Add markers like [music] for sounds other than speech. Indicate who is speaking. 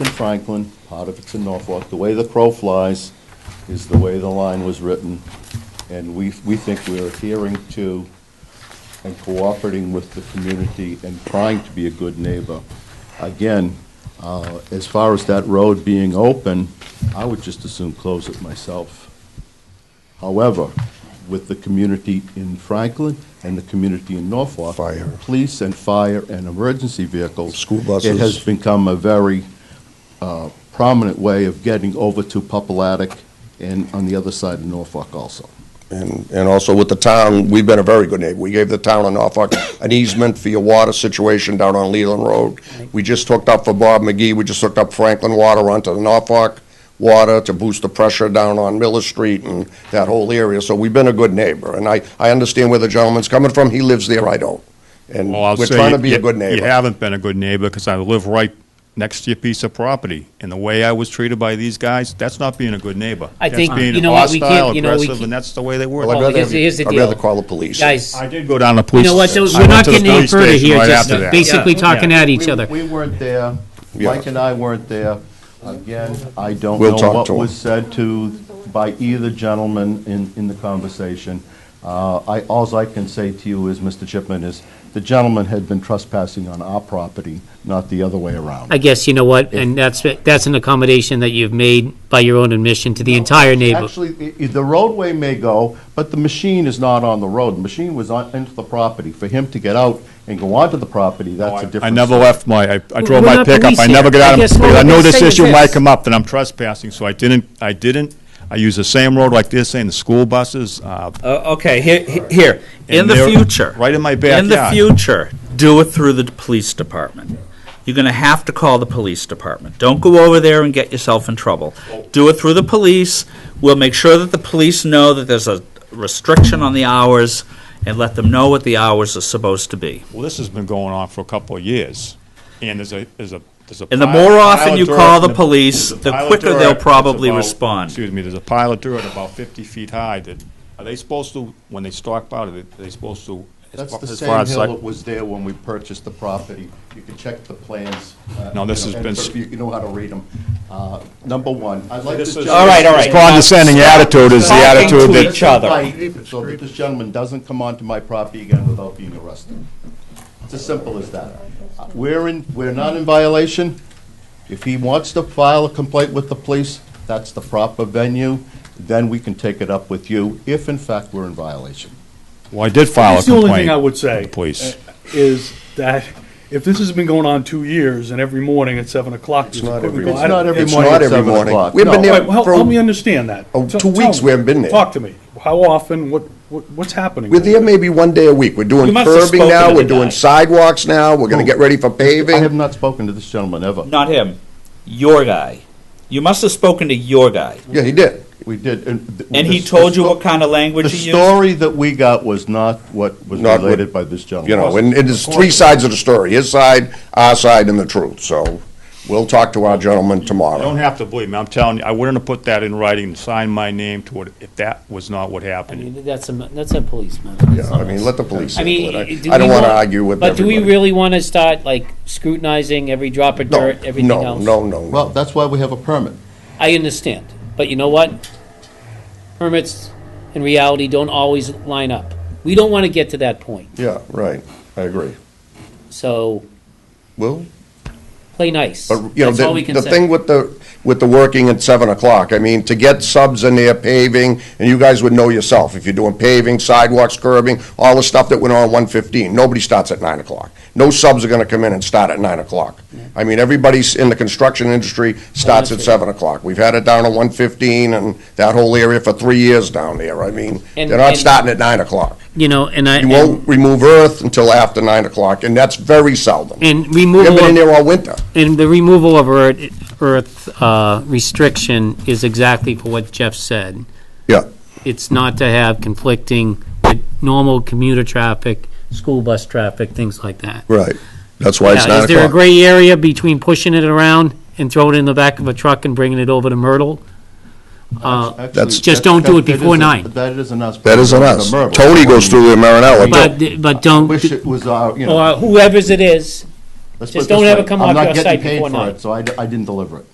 Speaker 1: Franklin, part of it's in Norfolk. The way the crow flies is the way the line was written, and we, we think we're adhering to and cooperating with the community and trying to be a good neighbor. Again, uh, as far as that road being open, I would just assume close it myself. However, with the community in Franklin and the community in Norfolk.
Speaker 2: Fire.
Speaker 1: Police and fire and emergency vehicles.
Speaker 2: School buses.
Speaker 1: It has become a very uh, prominent way of getting over to Populatic and on the other side of Norfolk also.
Speaker 2: And, and also with the town, we've been a very good neighbor. We gave the town of Norfolk [coughs] an easement for your water situation down on Leland Road. We just hooked up for Bob McGee, we just hooked up Franklin Water onto the Norfolk Water to boost the pressure down on Miller Street and that whole area. So we've been a good neighbor, and I, I understand where the gentleman's coming from. He lives there, I don't. And
Speaker 3: Well, I'll
Speaker 2: we're
Speaker 3: say
Speaker 2: trying to be
Speaker 3: you-
Speaker 2: a good
Speaker 3: You
Speaker 2: neighbor.
Speaker 3: haven't been a good neighbor because I live right next to your piece of property. And the way I was treated by these guys, that's not being a good neighbor.
Speaker 4: I think,
Speaker 3: that's being
Speaker 4: you know what, we
Speaker 3: hostile,
Speaker 4: can't- you know, we
Speaker 3: aggressive,
Speaker 4: can't-
Speaker 3: and that's the way they were.
Speaker 2: Well, I'd
Speaker 4: Well,
Speaker 2: rather,
Speaker 4: here's- here's the
Speaker 2: have- I'd rather
Speaker 4: deal.
Speaker 2: call the police.
Speaker 4: Guys,
Speaker 3: I did go down to
Speaker 4: you
Speaker 3: police.
Speaker 4: know what, those-
Speaker 3: I
Speaker 4: we're
Speaker 3: went
Speaker 4: not
Speaker 3: to the
Speaker 4: getting any
Speaker 3: police
Speaker 4: further
Speaker 3: station
Speaker 4: here,
Speaker 3: right
Speaker 4: just
Speaker 3: after that.
Speaker 4: basically
Speaker 3: Yeah.
Speaker 4: talking at each
Speaker 1: We-
Speaker 4: other.
Speaker 1: We weren't there.
Speaker 2: Yeah.
Speaker 1: Mike and I weren't there. Again, I don't
Speaker 2: We'll
Speaker 1: know
Speaker 2: talk
Speaker 1: what
Speaker 2: to him.
Speaker 1: was said to, by either gentleman in, in the conversation. Uh, I, alls I can say to you is, Mr. Chipman, is the gentleman had been trespassing on our property, not the other way around.
Speaker 4: I guess, you know what, and that's, that's an accommodation that you've made by your own admission to the entire neighbor.
Speaker 1: Actually, i- i- the roadway may go, but the machine is not on the road. The machine was on, into the property. For him to get out and go onto the property, that's a different.
Speaker 3: Oh, I never
Speaker 1: story.
Speaker 3: left my, I I
Speaker 4: We're
Speaker 3: drove my
Speaker 4: not
Speaker 3: pickup, I
Speaker 4: police
Speaker 3: never
Speaker 4: here.
Speaker 3: got
Speaker 4: I
Speaker 3: out,
Speaker 4: guess
Speaker 3: of-
Speaker 4: what
Speaker 3: because I
Speaker 4: I'm
Speaker 3: know this
Speaker 4: saying is
Speaker 3: issue might
Speaker 4: this.
Speaker 3: come up, that I'm trespassing, so I didn't, I didn't, I used the same road like they're saying, the school buses, uh,
Speaker 5: Uh, okay, here, here, in
Speaker 3: And
Speaker 5: the
Speaker 3: they're
Speaker 5: future.
Speaker 3: right in my
Speaker 5: In the
Speaker 3: backyard.
Speaker 5: future, do it through the police department. You're gonna have to call the police department. Don't go over there and get yourself in trouble. Do it through the police. We'll make sure that the police know that there's a restriction on the hours and let them know what the hours are supposed to be.
Speaker 3: well, this has been going on for a couple of years. And there's a, there's a, there's a.
Speaker 5: And the
Speaker 3: pile-
Speaker 5: more
Speaker 3: pile
Speaker 5: often
Speaker 3: of
Speaker 5: you
Speaker 3: dirt
Speaker 5: call
Speaker 3: and
Speaker 5: the police,
Speaker 3: there's a
Speaker 5: the
Speaker 3: pile of
Speaker 5: quicker
Speaker 3: dirt
Speaker 5: they'll
Speaker 3: that's
Speaker 5: probably
Speaker 3: about-
Speaker 5: respond.
Speaker 3: Excuse me, there's a pile of dirt about fifty feet high that, are they supposed to, when they stockpile it, are they supposed to? as
Speaker 1: That's
Speaker 3: far-
Speaker 1: the
Speaker 3: as far
Speaker 1: same
Speaker 3: as
Speaker 1: hill
Speaker 3: like-
Speaker 1: that was there when we purchased the property. You can check the plans. uh,
Speaker 3: No,
Speaker 1: you know,
Speaker 3: this has
Speaker 1: and
Speaker 3: been-
Speaker 1: sort of You you know how to read them. Number one, I'd like this
Speaker 3: This is-
Speaker 1: gentleman-
Speaker 5: All right, all right.
Speaker 3: It's condescending attitude is the
Speaker 5: Talking to
Speaker 3: attitude that.
Speaker 5: each other.
Speaker 1: Right, So that this gentleman doesn't come onto my property again without being arrested. It's as simple as that. We're in, we're not in violation. If he wants to file a complaint with the police, that's the proper venue. Then we can take it up with you if in fact we're in violation.
Speaker 3: Well, I did file a
Speaker 6: That's the only thing I
Speaker 3: complaint.
Speaker 6: would say. uh,
Speaker 3: Please.
Speaker 6: Is that if this has been going on two years and every morning at seven o'clock. It's
Speaker 2: not every
Speaker 1: It's not every
Speaker 2: It's
Speaker 1: morning
Speaker 2: not
Speaker 1: at
Speaker 2: every
Speaker 1: 7
Speaker 2: morning.
Speaker 1: o'clock.
Speaker 2: We've been
Speaker 1: No.
Speaker 2: there
Speaker 6: Wait, well,
Speaker 2: for-
Speaker 6: help me understand that.
Speaker 2: Oh,
Speaker 6: T-
Speaker 2: two weeks we
Speaker 6: tell me.
Speaker 2: haven't been there.
Speaker 6: Talk to me. How often? What, what, what's happening?
Speaker 2: We're there maybe one day a week. We're doing
Speaker 6: You must have
Speaker 2: curbing
Speaker 6: spoken
Speaker 2: now,
Speaker 6: to
Speaker 2: we're
Speaker 6: the
Speaker 2: doing
Speaker 6: guy.
Speaker 2: sidewalks now, we're gonna get ready for
Speaker 1: I have
Speaker 2: paving.
Speaker 1: not spoken to this gentleman ever.
Speaker 5: Not him, your guy. You must have spoken to your guy.
Speaker 2: Yeah, he did.
Speaker 1: We did. And th-
Speaker 5: And he
Speaker 1: the-
Speaker 5: told you
Speaker 1: the
Speaker 5: what kind
Speaker 1: sto-
Speaker 5: of
Speaker 1: The
Speaker 5: language he used?
Speaker 1: story that we got was not what was
Speaker 2: Not what-
Speaker 1: related by this gentleman.
Speaker 2: You know, and it is three sides of the story, his side, our side, and the truth. So we'll talk to our gentleman
Speaker 3: You don't
Speaker 2: tomorrow.
Speaker 3: have to believe me, I'm telling you, I wouldn't have put that in writing and signed my name to it if that was not what
Speaker 4: I
Speaker 3: happened.
Speaker 4: mean, that's a, that's a policeman. That's
Speaker 2: Yeah,
Speaker 4: not
Speaker 2: I mean,
Speaker 4: us.
Speaker 2: let the police
Speaker 4: I
Speaker 2: handle
Speaker 4: mean,
Speaker 2: it.
Speaker 4: do
Speaker 2: I- I don't
Speaker 4: we
Speaker 2: wanna
Speaker 4: want-
Speaker 2: argue with
Speaker 4: But do we
Speaker 2: everybody.
Speaker 4: really want to start like scrutinizing every drop of
Speaker 2: No,
Speaker 4: dirt, everything
Speaker 2: no,
Speaker 4: else?
Speaker 2: no, no,
Speaker 1: Well,
Speaker 2: no.
Speaker 1: that's why we have a permit.
Speaker 4: I understand, but you know what? Permits in reality don't always line up. We don't want to get to that point,
Speaker 2: Yeah, right, I agree.
Speaker 4: so
Speaker 2: Well,
Speaker 4: play nice.
Speaker 2: But, you know,
Speaker 4: That's all we
Speaker 2: the,
Speaker 4: can
Speaker 2: the
Speaker 4: say.
Speaker 2: thing with the, with the working at seven o'clock, I mean, to get subs in there paving, and you guys would know yourself, if you're doing paving, sidewalks, curbing, all the stuff that went on one fifteen, nobody starts at nine o'clock. No subs are gonna come in and start at nine o'clock. I mean, everybody's in the construction industry starts at
Speaker 4: true.
Speaker 2: seven o'clock. We've had it down on one fifteen and that whole area for three years down there, I mean, they're
Speaker 4: And-
Speaker 2: not
Speaker 4: and-
Speaker 2: starting at nine o'clock.
Speaker 4: You know, and I,
Speaker 2: You won't remove earth until after nine o'clock, and that's very seldom.
Speaker 4: and
Speaker 2: We haven't
Speaker 4: removal
Speaker 2: been in
Speaker 4: of
Speaker 2: there all winter.
Speaker 4: And the removal of earth, earth uh, restriction is exactly for what Jeff said.
Speaker 2: Yeah.
Speaker 4: It's not to have conflicting with normal commuter traffic, school bus traffic, things like that.
Speaker 2: Right. That's why it's
Speaker 4: Now,
Speaker 2: nine
Speaker 4: Is there a
Speaker 2: o'clock.
Speaker 4: gray area between pushing it around and throwing it in the back of a truck and bringing it over to Myrtle? Uh,
Speaker 2: That's-
Speaker 4: Just don't do it
Speaker 1: That- that
Speaker 4: before
Speaker 1: isn't-
Speaker 4: nine.
Speaker 1: That isn't us.
Speaker 2: That isn't us.
Speaker 1: It's a murmur.
Speaker 2: Tony goes through the Marinella.
Speaker 4: But, but don't,
Speaker 1: Wish it was our, you know.
Speaker 4: or whoever's it is,
Speaker 1: let's put
Speaker 4: Oh, just
Speaker 1: it this
Speaker 4: don't have
Speaker 1: way.
Speaker 4: it come
Speaker 1: I'm
Speaker 4: off
Speaker 1: not
Speaker 4: your
Speaker 1: getting
Speaker 4: site
Speaker 1: paid
Speaker 4: before
Speaker 1: for
Speaker 4: nine.
Speaker 1: it, So I, d- I didn't deliver it.